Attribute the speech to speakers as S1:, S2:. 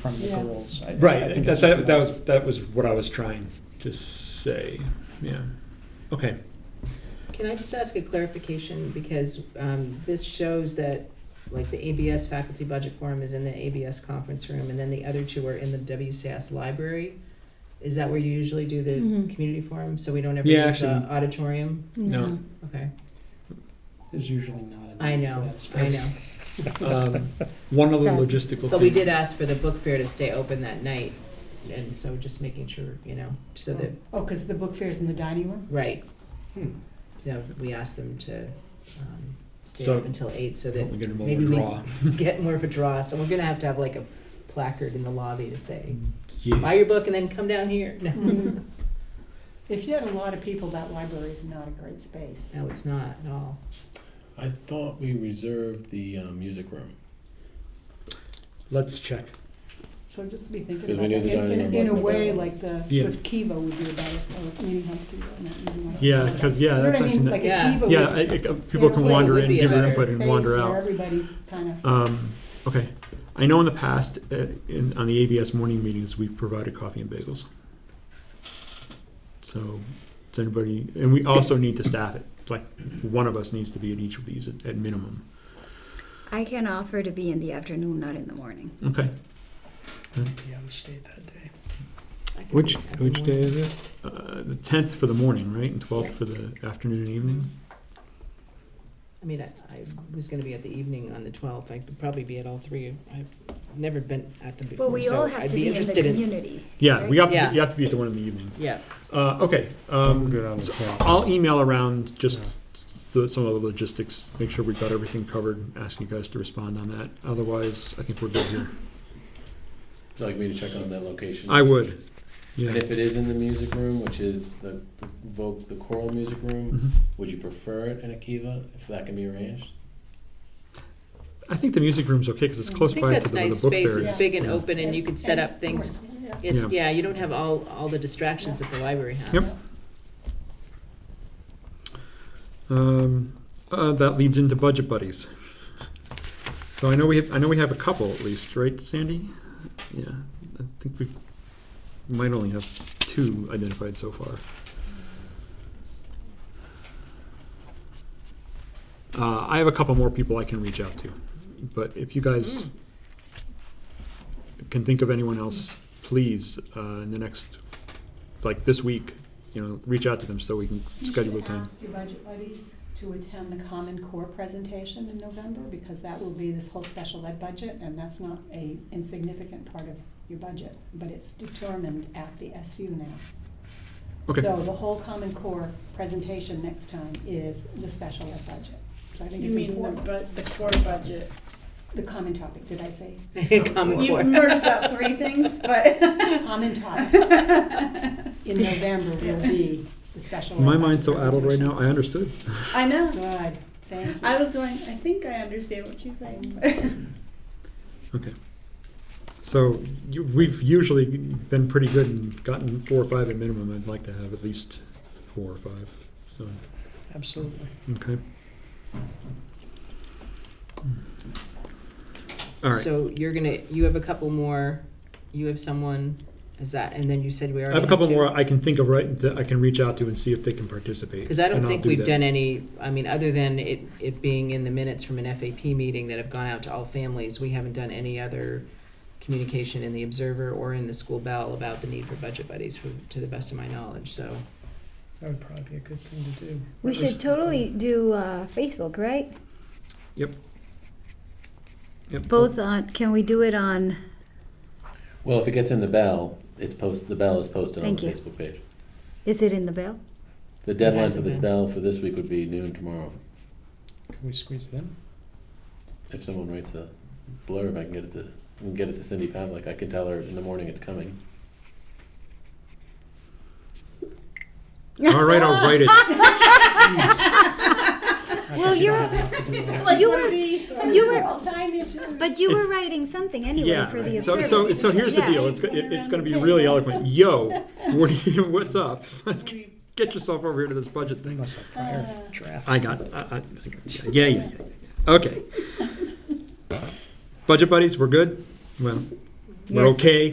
S1: from the
S2: Yeah.
S1: girls. I- I- I
S3: Right,
S1: think
S3: that,
S1: it's
S3: that,
S1: just
S3: that
S1: more-
S3: was, that was what I was trying to say, yeah. Okay,
S2: Can I just ask a clarification, because um, this shows that, like, the ABS faculty budget forum is in the ABS conference room, and then the other two are in the WCS library? Is that where you usually do the
S4: Mhm.
S2: community forum, so we don't ever
S3: Yeah,
S2: use the
S3: actually-
S2: auditorium?
S3: No.
S2: Okay,
S1: There's usually not a
S2: I
S1: need for
S2: know,
S1: that
S2: I
S1: space.
S2: know.
S3: um, one other
S4: Sad.
S3: logistical thing.
S2: But we did ask for the book fair to stay open that night, and so just making sure, you know, so that,
S4: Oh, because the book fair's in the dining room?
S2: right,
S1: Hmm.
S2: you know, we asked them to um, stay
S3: So-
S2: up until eight, so that
S3: Probably get them
S2: maybe we-
S3: overdraw.
S2: get more of a draw. So we're gonna have to have like a placard in the lobby to say, buy
S3: Yeah,
S2: your book and then come down here. No,
S5: Mm-hmm.
S4: Mm-hmm. If you had a lot of people, that library is not a great space.
S2: no, it's not at all.
S6: I thought we reserved the um, music room.
S3: let's check.
S4: So just to be thinking
S6: Because we
S4: about
S6: knew
S4: that,
S6: the
S4: in,
S6: dining
S4: in-
S6: room
S4: in a
S6: wasn't
S4: way
S6: available.
S4: like the
S3: Yeah.
S4: Swift Kiva would do about it, or Meeting House Kiva, not Meeting House.
S3: Yeah,
S4: Kiva.
S3: cause, yeah,
S4: You know what
S3: that's
S4: I mean?
S3: actually,
S4: Like
S3: not-
S4: a
S2: Yeah.
S4: Kiva
S3: yeah,
S4: would-
S3: I- I- people can
S4: Yeah,
S3: wander
S2: would
S3: in,
S2: be a
S3: give their
S2: better
S3: input and wander
S4: space where
S3: out.
S4: everybody's kind of,
S3: Um, okay, I know in the past, uh, in, on the ABS morning meetings, we've provided coffee and bagels. So, does anybody, and we also need to staff it, like, one of us needs to be at each of these at, at minimum,
S5: I can offer to be in the afternoon, not in the morning.
S3: okay?
S1: Yeah, we stayed that day.
S2: I can-
S7: Which,
S2: I can
S7: which
S2: work.
S7: day is it?
S3: Uh, the tenth for the morning, right, and twelfth for the afternoon and evening?
S2: I mean, I, I was gonna be at the evening on the twelfth. I could probably be at all three. I've never been at them before,
S5: Well, we
S2: so
S5: all have
S2: I'd
S5: to
S2: be
S5: be in the
S2: interested in.
S5: community.
S3: Yeah, we have
S2: Yeah.
S3: to, you have to be at the one in the evening.
S2: Yeah,
S3: Uh, okay,
S7: I'm
S3: um,
S7: good on the
S3: so
S7: 10th.
S3: I'll email around just
S7: Yeah.
S3: the, some of the logistics, make sure we've got everything covered, ask you guys to respond on that. Otherwise, I think we're good here.
S6: Would you like me to check on that location?
S3: I would,
S6: And
S3: yeah.
S6: if it is in the music room, which is the the voc the choral music room,
S3: Mhm.
S6: would you prefer it in a kiva if that can be arranged?
S3: I think the music room's okay, because it's
S4: I
S2: I
S3: close
S2: think
S3: by to the
S2: that's
S3: the
S2: nice
S3: book
S2: space.
S3: fair.
S2: It's
S4: Yeah.
S2: big and open and you could set
S4: and
S2: up things.
S4: course, yeah.
S2: It's, yeah, you don't have all, all the distractions that the library has.
S3: Yep. Um, uh, that leads into budget buddies. So I know we have, I know we have a couple at least, right, Sandy? Yeah, I think we might only have two identified so far. Uh, I have a couple more people I can reach out to, but if you guys can think of anyone else, please, uh, in the next, like this week, you know, reach out to them so we can schedule a
S4: You should
S3: time.
S4: ask your budget buddies to attend the Common Core presentation in November, because that will be this whole special ed budget, and that's not a insignificant part of your budget, but it's determined at the SU now.
S3: Okay.
S4: So the whole Common Core presentation next time is the special ed budget. So I think
S8: You
S4: it's
S8: mean the,
S4: important.
S8: bu- the core budget?
S4: The common topic, did I say?
S2: Common
S8: You
S2: core.
S8: merged about three things, but.
S4: Common topic in November will be the special ed
S3: My
S4: budget
S3: mind's so addled right
S4: presentation.
S3: now, I understood.
S8: I know.
S4: Good, thank you.
S8: I was going, I think I understand what she's saying.
S3: Okay. So you, we've usually been pretty good and gotten four or five at minimum. I'd like to have at least four or five, so,
S1: Absolutely.
S3: okay. All right,
S2: So you're gonna, you have a couple more, you have someone, is that, and then you said we
S3: I
S2: already
S3: have a couple more I can think of right, that I can reach out to and see if they can participate.
S2: Because I don't
S3: and I'll
S2: think
S3: do
S2: we've
S3: that.
S2: done any, I mean, other than it, it being in the minutes from an FAP meeting that have gone out to all families, we haven't done any other communication in the Observer or in the School Bell about the need for budget buddies, for, to the best of my knowledge, so.
S1: That would probably be a good thing to do.
S5: We should totally do uh, Facebook, right?
S3: Yep.
S5: Both on, can we do it on,
S6: Well, if it gets in the bell, it's post, the bell is posted on
S5: Thank
S6: the
S5: you.
S6: Facebook page.
S5: is it in the bell?
S6: The deadline for
S2: hasn't
S6: the
S2: been.
S6: bell for this week would be noon tomorrow.
S1: Can we squeeze it in?
S6: If someone writes a blurb, I can get it to, I can get it to Cindy Pavlik. I can tell her in the morning it's coming.
S3: All right, I'll write it.
S5: Well, you're-
S8: Like,
S5: You
S8: what
S5: were-
S8: are these?
S5: You were-
S4: time issues.
S5: But you
S3: It's-
S5: were writing something anyway for the
S3: Yeah, so,
S5: observer.
S3: so, so here's the
S5: Yeah.
S3: deal, it's, go- it- it's gonna be really eloquent. Yo, what do you, what's up? Let's get yourself over here to this budget
S1: We
S3: thing.
S1: must have prior drafts.
S3: I got, I, I, yeah, yeah, yeah, yeah. okay. Budget buddies, we're good? Well, We're
S5: Yes.
S3: okay.